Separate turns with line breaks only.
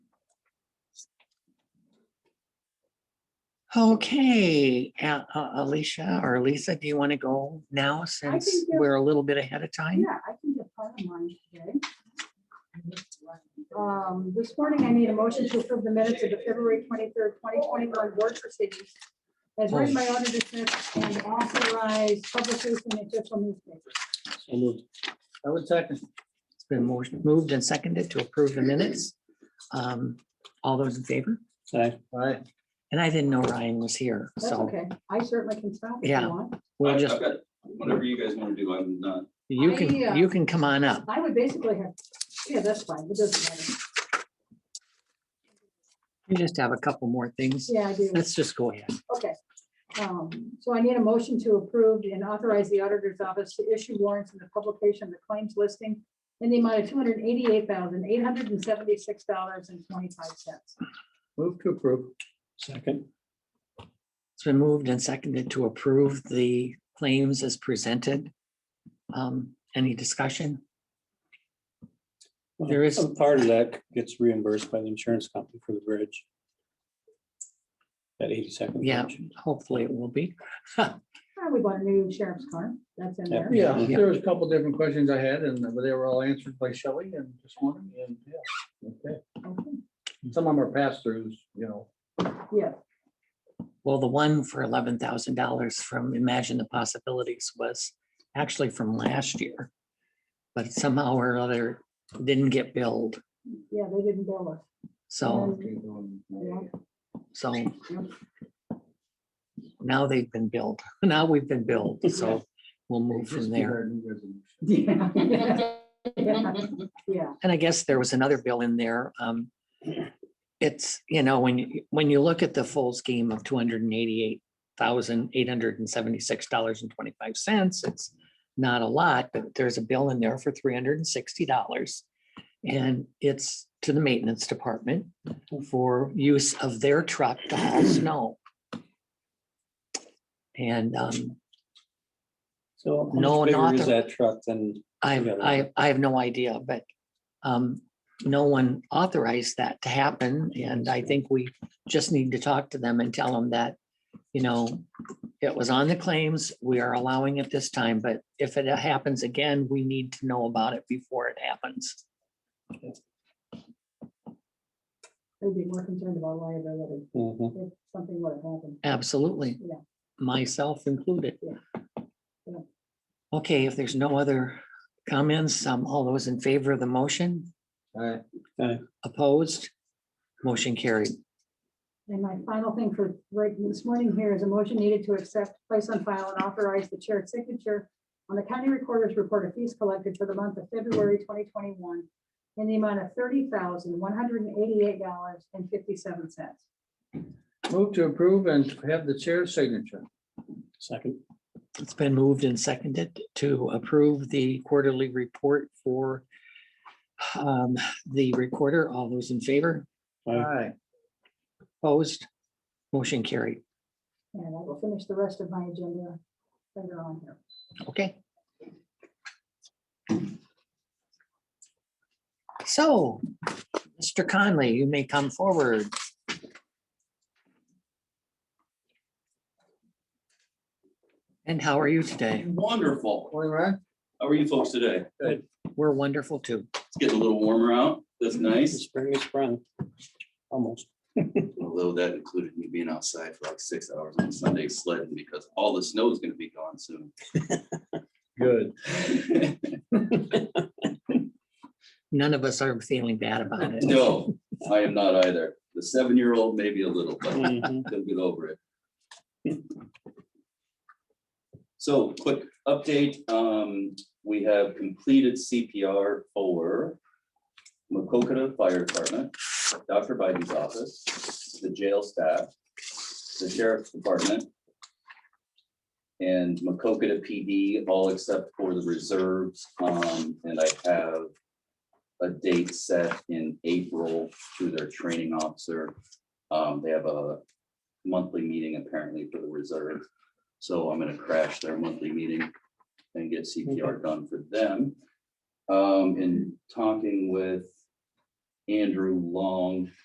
Okay, A- uh, Alicia or Lisa, do you want to go now since
go.
we're a little bit ahead of time?
Oh, Yeah, I can get part of mine today. Um, This morning, I made a motion to approve the minutes of the February twenty-third, twenty twenty-one board proceedings as written by Auditor Smith and authorized publishers in the official newspaper.
So moved. I would second.
It's been motion- moved and seconded to approve the minutes. Um, All those in favor?
Aye. Aye.
And I didn't know Ryan was here,
That's
so
okay. I certainly can stop if
Yeah.
you want.
we'll
I've
just,
I've got Whatever you guys want to do, I'm not,
you can,
I, uh,
you can come on up.
I would basically have, yeah, that's fine. It doesn't matter.
You just have a couple more things.
Yeah, I do.
Let's just go ahead.
Okay. Um, So I need a motion to approve and authorize the auditor's office to issue warrants in the publication of the claims listing in the amount of two hundred eighty-eight thousand, eight hundred and seventy-six dollars and twenty-five cents.
Move to approve. Second.
It's been moved and seconded to approve the claims as presented. Um, Any discussion? There is-
A part of that gets reimbursed by the insurance company for the bridge. That eighty second.
Yeah, hopefully it will be.
We bought a new sheriff's car. That's in there.
Yeah,
Yeah.
there was a couple different questions I had and they were all answered by Shelley and this morning and yeah. okay.
Okay.
Some of them are pass throughs, you know.
Yeah,
Well, the one for eleven thousand dollars from Imagine the Possibilities was actually from last year. But somehow or other didn't get billed.
yeah, they didn't bill us.
So,
okay, um,
so now they've been billed. Now we've been billed, so we'll move
just
from
did
there.
our new resolution.
Yeah. Yeah,
And I guess there was another bill in there. um, It's, you know, when, you when you look at the full scheme of two hundred and eighty-eight thousand, eight hundred and seventy-six dollars and twenty-five cents, it's not a lot, but there's a bill in there for three hundred and sixty dollars. And it's to the maintenance department for use of their truck to haul snow. And um,
So. how much
No,
bigger
not
Is
the-
that truck then?
I,
Yeah.
I, I have no idea, but um, no one authorized that to happen, and I think we just need to talk to them and tell them that, you know, it was on the claims, we are allowing it this time, but if it happens again, we need to know about it before it happens.
they'd be more concerned about liability
Mhm.
if something would have happened.
Absolutely.
Yeah.
Myself included.
Yeah. Yeah.
Okay, if there's no other comments, um, all those in favor of the motion,
All right,
opposed, motion carried.
And my final thing for right this morning here is a motion needed to accept, place on file and authorize the chair's signature on the county recorder's report of fees collected for the month of February twenty twenty-one in the amount of thirty thousand, one hundred and eighty-eight dollars and fifty-seven cents.
Move to approve and have the chair's signature.
Second.
It's been moved and seconded to approve the quarterly report for um, the recorder. All those in favor,
All
Aye.
right,
opposed, motion carried.
And I will finish the rest of my agenda later on here.
Okay. So, Mr. Conley, you may come forward. And how are you today?
wonderful.
All right.
How are you folks today?
We're wonderful too.
It's getting a little warmer out. That's nice.
Spring is sprung. Almost.
Although that included me being outside for like six hours on Sunday sledding because all the snow is going to be gone soon.
Good.
None of us are feeling bad about it.
No, I am not either. The seven-year-old maybe a little, but
Mhm.
they'll get over it. So quick update, um, we have completed CPR for Macokota Fire Department, Dr. Biden's office, the jail staff, the sheriff's department, and Macokota PD, all except for the reserves. Um, and I have a date set in April through their training officer. Um, they have a monthly meeting apparently for the reserve. So I'm gonna crash their monthly meeting and get CPR done for them. Um, and talking with Andrew Long